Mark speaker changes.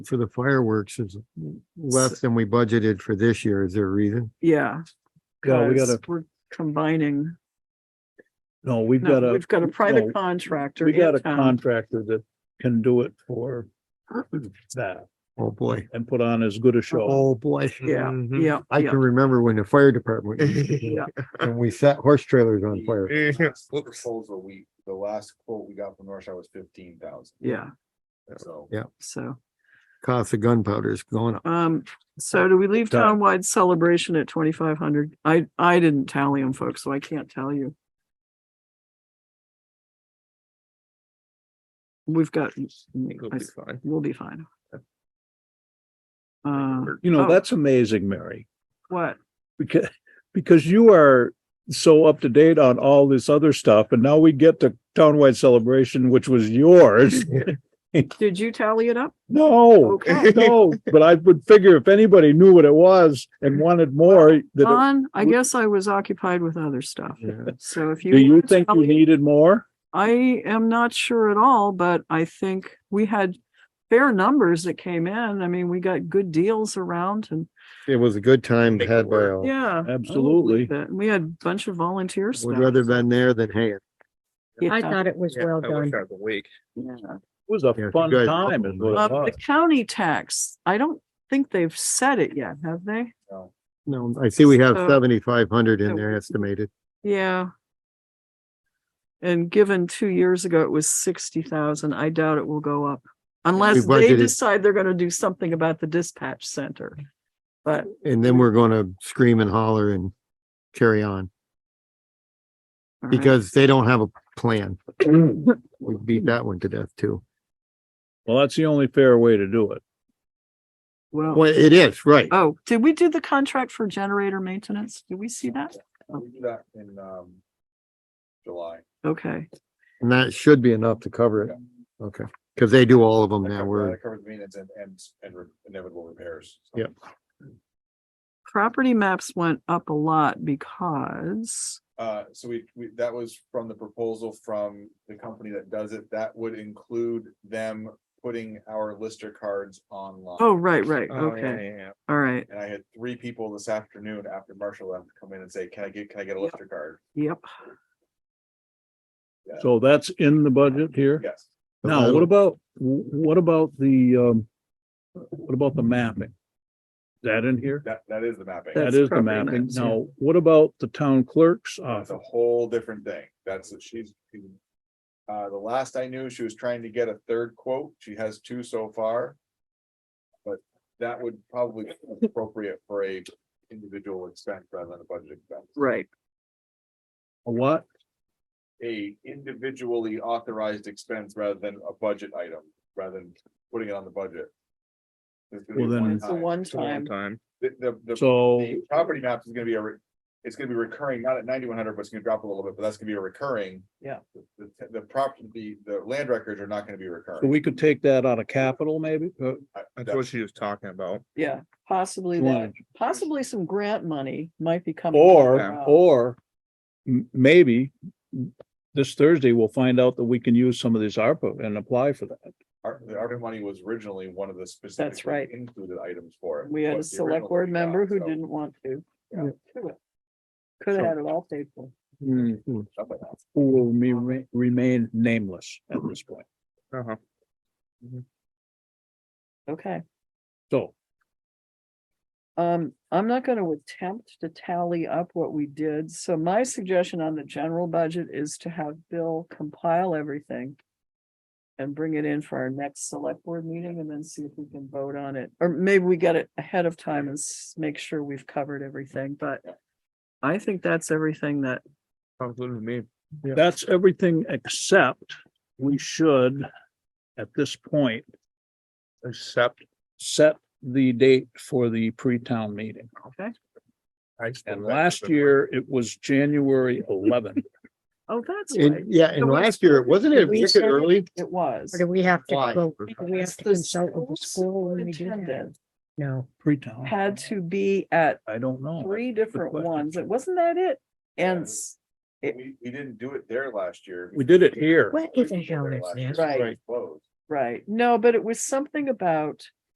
Speaker 1: for the fireworks is less than we budgeted for this year. Is there a reason?
Speaker 2: Yeah.
Speaker 3: Yeah, we
Speaker 2: 'cause
Speaker 3: gotta-
Speaker 2: We're combining,
Speaker 3: No, we've got
Speaker 2: no,
Speaker 3: a,
Speaker 2: we've got a
Speaker 3: no,
Speaker 2: private contractor.
Speaker 3: we got
Speaker 2: in
Speaker 3: a
Speaker 2: town.
Speaker 3: contractor that can do it for that
Speaker 1: Oh, boy.
Speaker 3: and put on as good a show.
Speaker 1: Oh, boy.
Speaker 2: Yeah,
Speaker 4: Mhm.
Speaker 2: yeah,
Speaker 1: I
Speaker 2: yeah.
Speaker 1: can remember when the fire department, and we set horse trailers on fire.
Speaker 5: The proposal we, the last quote we got from North Shore was fifteen thousand,
Speaker 2: Yeah,
Speaker 5: so.
Speaker 2: so,
Speaker 1: Cost of gunpowder is going up.
Speaker 2: um, so do we leave
Speaker 3: Done.
Speaker 2: townwide celebration at twenty-five hundred? I, I didn't tally them, folks, so I can't tell you. We've got, mm,
Speaker 4: It'll
Speaker 2: I
Speaker 4: be fine.
Speaker 2: We'll be fine. Uh,
Speaker 4: Work.
Speaker 3: You know,
Speaker 2: Oh.
Speaker 3: that's amazing, Mary,
Speaker 2: what?
Speaker 3: because, because you are so up to date on all this other stuff and now we get to townwide celebration, which was yours.
Speaker 2: Did you tally it up?
Speaker 3: No,
Speaker 2: Okay.
Speaker 3: no, but I would figure if anybody knew what it was and wanted more, that,
Speaker 2: Don, I
Speaker 3: we-
Speaker 2: guess I was occupied with other stuff. So if
Speaker 3: it-
Speaker 2: you.
Speaker 3: do you
Speaker 2: wanna
Speaker 3: think
Speaker 2: tell
Speaker 3: you
Speaker 2: me-
Speaker 3: needed more?
Speaker 2: I am not sure at all, but I think we had fair numbers that came in. I mean, we got good deals around and,
Speaker 1: It was a good time uh,
Speaker 4: Make it
Speaker 1: had by
Speaker 4: work.
Speaker 1: all.
Speaker 2: yeah.
Speaker 3: Absolutely.
Speaker 2: But we had a bunch of volunteers.
Speaker 1: Oh, Would rather been there than hay.
Speaker 6: I thought it was
Speaker 4: Yeah,
Speaker 6: well
Speaker 4: I wish
Speaker 6: done.
Speaker 4: I was awake.
Speaker 3: It was a
Speaker 1: Yeah, you
Speaker 3: fun
Speaker 1: guys-
Speaker 3: time. is what it
Speaker 2: Uh,
Speaker 3: was.
Speaker 2: the county tax, I don't think they've said it yet, have they?
Speaker 1: No, I see we have
Speaker 2: So-
Speaker 1: seventy-five hundred
Speaker 2: So-
Speaker 1: in there estimated.
Speaker 2: Yeah. And given two years ago, it was sixty thousand. I doubt it will go up unless they
Speaker 1: budgeted-
Speaker 2: decide they're gonna do something about the dispatch center. But
Speaker 1: And then we're gonna scream and holler and carry on
Speaker 2: all right.
Speaker 1: because they don't have a plan. We beat that one to death too.
Speaker 3: Well, that's the only fair way to do it.
Speaker 2: Well.
Speaker 1: Well, it is, right.
Speaker 2: Oh, did we do the contract for generator maintenance? Did we see that?
Speaker 5: We do that in, um, July.
Speaker 2: Okay,
Speaker 1: And that should be enough to cover it. Okay, because they do all of them
Speaker 5: That
Speaker 1: now.
Speaker 5: covers-
Speaker 1: We're,
Speaker 5: That covers maintenance and, and, and re- inevitable repairs. so.
Speaker 1: Yep.
Speaker 2: property maps went up a lot because,
Speaker 5: Uh, so we, we, that was from the proposal from the company that does it. That would include them putting our lister cards online.
Speaker 2: oh, right, right,
Speaker 4: Oh, yeah,
Speaker 2: okay,
Speaker 4: yeah, yeah.
Speaker 2: all right,
Speaker 5: And I had three people this afternoon after Marshall left come in and say, can I get, can I get a
Speaker 2: Yep.
Speaker 5: lister card?
Speaker 2: yep.
Speaker 3: So that's in the budget here.
Speaker 5: Yes.
Speaker 3: Now, what about, what about the, um, what about the mapping? Is that in here?
Speaker 5: That, that is the mapping.
Speaker 3: That
Speaker 2: That's
Speaker 3: is the
Speaker 2: property
Speaker 3: mapping.
Speaker 2: maps, yeah.
Speaker 3: Now, what about the town clerk's
Speaker 5: That's a
Speaker 3: office?
Speaker 5: whole different thing. That's, she's. Uh, the last I knew, she was trying to get a third quote. She has two so far. But that would probably be appropriate for a individual expense rather than a budget expense.
Speaker 2: Right.
Speaker 3: A what?
Speaker 5: A individually authorized expense rather than a budget item, rather than putting it on the budget. It's gonna be
Speaker 3: Well, then-
Speaker 5: one
Speaker 2: It's a
Speaker 5: time.
Speaker 2: one
Speaker 4: It's a long
Speaker 2: time,
Speaker 4: time.
Speaker 5: The, the, the-
Speaker 3: So,
Speaker 5: the property maps is gonna be a, re- it's gonna be recurring, not at ninety-one hundred, but it's gonna drop a little bit, but that's gonna be a recurring.
Speaker 3: Yeah.
Speaker 5: The, the property, the, the land records are not gonna be
Speaker 3: so
Speaker 5: recurring.
Speaker 3: we could take that out of capital maybe? Uh,
Speaker 5: I-
Speaker 4: That's
Speaker 5: that-
Speaker 4: what she was talking about.
Speaker 2: yeah, possibly that,
Speaker 3: one.
Speaker 2: possibly some grant money might be coming. Uh,
Speaker 3: Or,
Speaker 2: around.
Speaker 3: or m- maybe this Thursday we'll find out that we can use some of this ARPA and apply for that.
Speaker 5: Our, the ARPA money was originally one of the specific.
Speaker 2: That's right.
Speaker 5: Included items for it.
Speaker 2: We had a
Speaker 5: was the
Speaker 2: select
Speaker 5: original
Speaker 2: board
Speaker 5: one we got,
Speaker 2: member who
Speaker 5: so
Speaker 2: didn't want to.
Speaker 5: Yeah.
Speaker 2: Could have had it all paid for.
Speaker 5: stuff like that.
Speaker 3: Who will remain, remain nameless at this point.
Speaker 4: Uh-huh.
Speaker 2: Okay,
Speaker 3: So
Speaker 2: um, I'm not gonna attempt to tally up what we did, so my suggestion on the general budget is to have Bill compile everything. And bring it in for our next select board meeting and then see if we can vote on it, or maybe we get it ahead of time and s- make sure we've covered everything, but. I think that's everything that,
Speaker 4: Sounds good to me.
Speaker 3: that's everything except we should, at this point,
Speaker 4: Except
Speaker 3: set the date for the pre-town meeting.
Speaker 4: I. still think
Speaker 3: And last
Speaker 4: it's a-
Speaker 3: year, it was January eleventh.
Speaker 2: oh, that's right,
Speaker 1: And, yeah, and last year, wasn't it,
Speaker 6: We
Speaker 1: was it
Speaker 6: said-
Speaker 1: early?
Speaker 2: it was.
Speaker 6: Or do we have to
Speaker 1: Why?
Speaker 6: go,
Speaker 4: It's
Speaker 6: do we have
Speaker 2: It's
Speaker 6: to
Speaker 2: the
Speaker 6: consult with the
Speaker 2: school's
Speaker 6: school when we do that?
Speaker 2: superintendent
Speaker 6: No,
Speaker 3: Pre-town.
Speaker 2: Had to be at
Speaker 3: I don't know.
Speaker 2: three different
Speaker 3: Oh, question.
Speaker 2: ones. It wasn't that it? And
Speaker 5: Yeah.
Speaker 2: s- It-
Speaker 5: We, we didn't do it there last year.
Speaker 3: We did it here.
Speaker 6: what
Speaker 5: We
Speaker 6: in the
Speaker 5: did it
Speaker 6: hell
Speaker 5: there
Speaker 6: is
Speaker 5: last year,
Speaker 6: this?
Speaker 5: so it was
Speaker 2: Right.
Speaker 5: closed.
Speaker 2: Right, no, but it was something about